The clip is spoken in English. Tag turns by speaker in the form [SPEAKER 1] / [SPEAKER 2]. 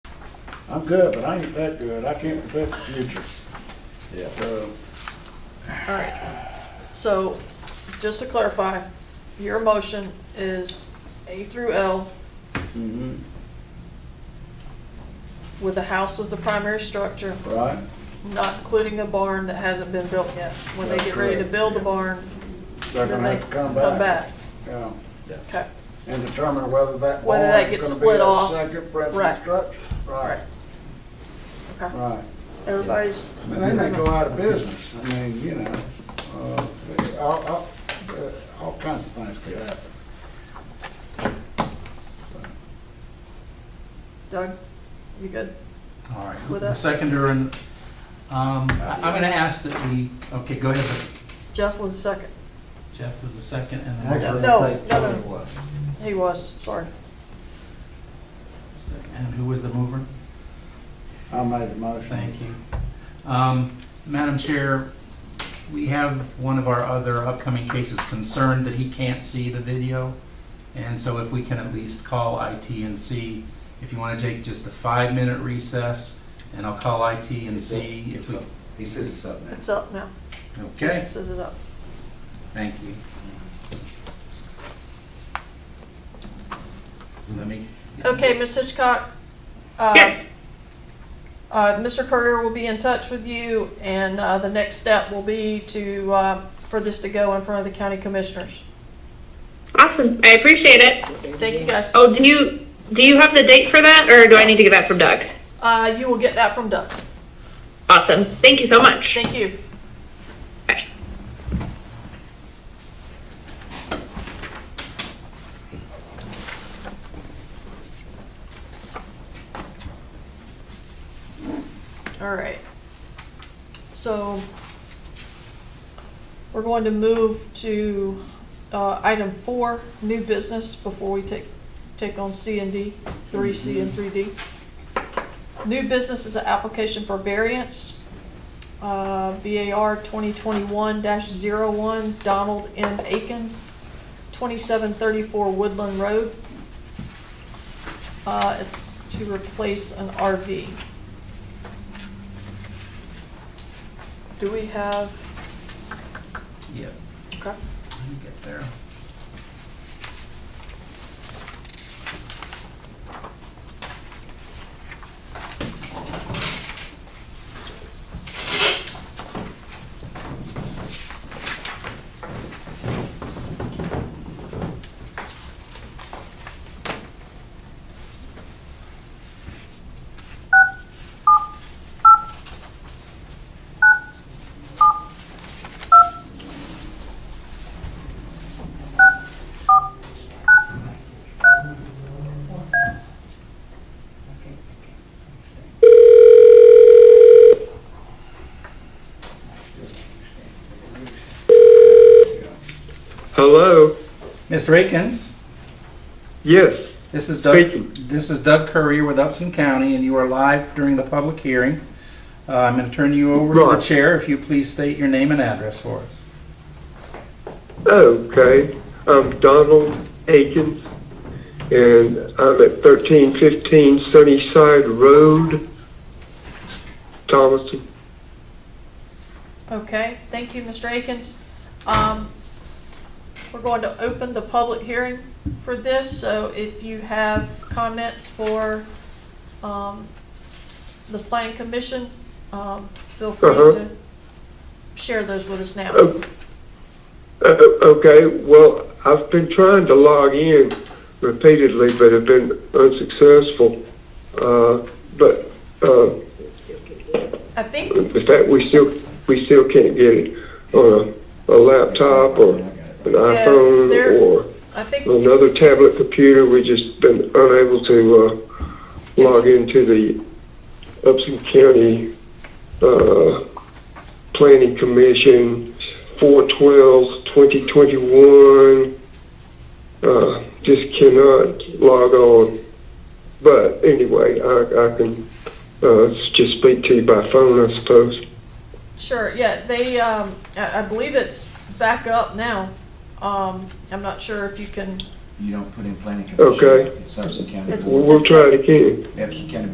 [SPEAKER 1] I'm good, but I ain't that good. I can't predict the future.
[SPEAKER 2] Yeah.
[SPEAKER 1] So,
[SPEAKER 3] All right, so just to clarify, your motion is A through L
[SPEAKER 1] mhm,
[SPEAKER 3] with the house as the primary structure,
[SPEAKER 1] right?
[SPEAKER 3] not including the barn that hasn't been built yet. When they
[SPEAKER 1] That's
[SPEAKER 3] get ready to
[SPEAKER 1] correct.
[SPEAKER 3] build the barn,
[SPEAKER 1] They're
[SPEAKER 3] then
[SPEAKER 1] gonna
[SPEAKER 3] they
[SPEAKER 1] have to
[SPEAKER 3] come back.
[SPEAKER 1] Yeah,
[SPEAKER 3] Okay,
[SPEAKER 1] and determine whether that
[SPEAKER 3] Whether
[SPEAKER 1] barn
[SPEAKER 3] that
[SPEAKER 1] is
[SPEAKER 3] gets
[SPEAKER 1] gonna
[SPEAKER 3] split
[SPEAKER 1] be a
[SPEAKER 3] off.
[SPEAKER 1] second principal
[SPEAKER 3] Right.
[SPEAKER 1] structure. Right,
[SPEAKER 3] okay.
[SPEAKER 1] right.
[SPEAKER 3] Everybody's,
[SPEAKER 1] I mean, they may go out of business. I mean, you know, uh, all, all, uh, all kinds of things could happen.
[SPEAKER 3] Doug, you good?
[SPEAKER 4] All right,
[SPEAKER 3] With
[SPEAKER 4] the
[SPEAKER 3] us.
[SPEAKER 4] seconder and, um, I- I'm gonna ask that we, okay, go ahead.
[SPEAKER 3] Jeff was second.
[SPEAKER 4] Jeff was the second and the
[SPEAKER 2] Actually,
[SPEAKER 3] No,
[SPEAKER 2] I think
[SPEAKER 3] no, no.
[SPEAKER 2] Tony was.
[SPEAKER 3] He was, sorry.
[SPEAKER 4] and who was the mover?
[SPEAKER 1] I made the motion.
[SPEAKER 4] Thank you. Um, Madam Chair, we have one of our other upcoming cases concerned that he can't see the video. And so if we can at least call IT and see, if you want to take just a five-minute recess, and I'll call IT and see if we,
[SPEAKER 2] He says it's up now.
[SPEAKER 3] It's up now.
[SPEAKER 4] okay?
[SPEAKER 3] Jason says it up.
[SPEAKER 4] Thank you. Let me.
[SPEAKER 3] Okay, Ms. Hitchcock, uh, uh, Mr. Courier will be in touch with you, and uh, the next step will be to, uh, for this to go in front of the county commissioners.
[SPEAKER 5] Awesome. I appreciate it.
[SPEAKER 3] Thank you, guys.
[SPEAKER 5] Oh, do you do you have the date for that, or do I need to get that from Doug?
[SPEAKER 3] Uh, You will get that from Doug.
[SPEAKER 5] Awesome. Thank you so much.
[SPEAKER 3] Thank you.
[SPEAKER 5] Bye.
[SPEAKER 3] All right. So we're going to move to uh, item four, new business, before we take, take on C and D, three C and three D. New business is an application for variance, uh, VAR 2021-01, Donald M. Akins, 2734 Woodland Road. Uh, It's to replace an RV. Do we have,
[SPEAKER 4] Yeah,
[SPEAKER 3] okay,
[SPEAKER 4] let me get there.
[SPEAKER 6] Hello.
[SPEAKER 4] Mr. Akins,
[SPEAKER 6] Yes.
[SPEAKER 4] this is Doug,
[SPEAKER 6] Speaking.
[SPEAKER 4] this is Doug Courier with Upson County, and you are live during the public hearing. Uh, I'm going to turn you over to the
[SPEAKER 6] Right.
[SPEAKER 4] chair, if you please state your name and address for us.
[SPEAKER 6] Okay. I'm Donald Akins, and I'm at 1315 Sunnyside Road, Thomaston.
[SPEAKER 3] okay, thank you, Mr. Akins. Um, We're going to open the public hearing for this, so if you have comments for um, the planning commission, um, feel free
[SPEAKER 6] Uh-huh.
[SPEAKER 3] to share those with us now.
[SPEAKER 6] Oh, Uh, okay. Well, I've been trying to log in repeatedly, but have been unsuccessful. Uh, but uh,
[SPEAKER 3] I think,
[SPEAKER 6] in fact, we still we still can't get it on a, a laptop or an iPhone
[SPEAKER 3] there-
[SPEAKER 6] or.
[SPEAKER 3] I think
[SPEAKER 6] another tablet computer. we just been unable to uh, log into the Upson County uh, Planning Commission 412 2021. Uh, just cannot log on. But anyway, I, I can uh, just speak to you by phone, I suppose.
[SPEAKER 3] Sure, yeah, they, um, I, I believe it's back up now. Um, I'm not sure if you can,
[SPEAKER 2] You don't put in planning commission.
[SPEAKER 6] Okay.
[SPEAKER 2] It's Upson County
[SPEAKER 3] It's-
[SPEAKER 2] Board,
[SPEAKER 6] We'll, we'll try it again.
[SPEAKER 2] Upson County